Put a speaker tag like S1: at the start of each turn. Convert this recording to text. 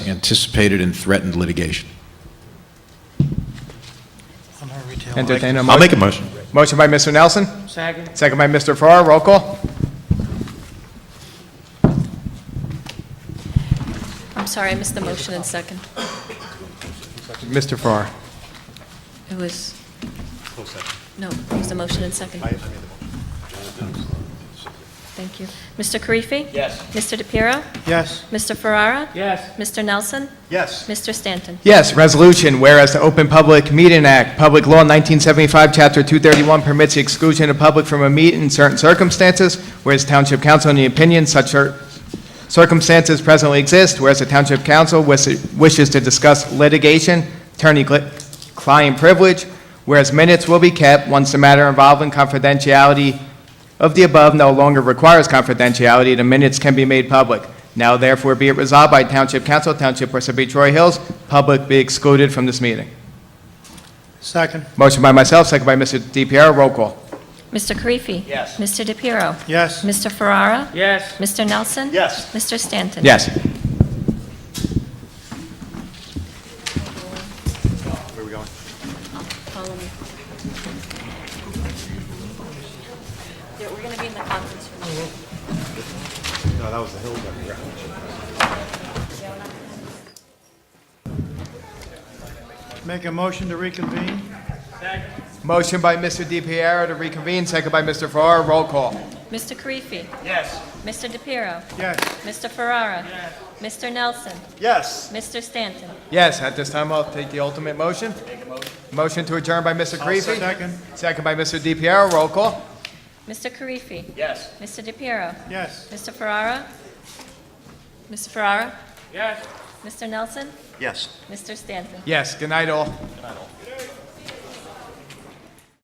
S1: anticipated and threatened litigation.
S2: on our retail.
S3: Entertain a
S1: I'll
S3: motion.
S1: make a motion.
S3: Motion by Mr. Nelson,
S4: Second.
S3: second by Mr. Farrar, roll call.
S5: I'm sorry, I missed the motion and second.
S3: Mr. Farrar.
S5: It was... No, it was the motion and second. Thank you. Mr. Karifi?
S4: Yes.
S5: Mr. DePiero?
S2: Yes.
S5: Mr. Ferrara?
S4: Yes.
S5: Mr. Nelson?
S2: Yes.
S5: Mr. Stanton?
S3: Yes, resolution, whereas the Open Public Meeting Act, Public Law 1975, Chapter 231 permits the exclusion of public from a meet in certain circumstances, whereas Township Council, in the opinion such cir- circumstances presently exist, whereas the Township Council wis- wishes to discuss litigation, attorney-client privilege, whereas minutes will be kept once the matter involving confidentiality of the above no longer requires confidentiality, the minutes can be made public. Now therefore be it resolved by Township Council, Township Parsippany Troy Hills, public be excluded from this meeting.
S2: Second.
S3: Motion by myself, second by Mr. DiPiero, roll call.
S5: Mr. Karifi?
S4: Yes.
S5: Mr. DePiero?
S2: Yes.
S5: Mr. Ferrara?
S4: Yes.
S5: Mr. Nelson?
S2: Yes.
S5: Mr. Stanton?
S3: Yes.
S5: Follow me. Yeah, we're going to be in the conference room.
S2: Make a motion to reconvene?
S3: Motion by Mr. DiPiero to reconvene, second by Mr. Farrar, roll call.
S5: Mr. Karifi?
S4: Yes.
S5: Mr. DePiero?
S2: Yes.
S5: Mr. Ferrara? Mr. Nelson?
S2: Yes.
S5: Mr. Stanton?
S3: Yes, at this time I'll take the ultimate motion. Motion to adjourn by Mr. Karifi,
S2: Second.
S3: second by Mr. DiPiero, roll call.
S5: Mr. Karifi?
S4: Yes.
S5: Mr. DePiero?
S2: Yes.
S5: Mr. Ferrara? Mr. Ferrara?
S4: Yes.
S5: Mr. Nelson?
S2: Yes.
S5: Mr. Stanton?
S3: Yes, good night all.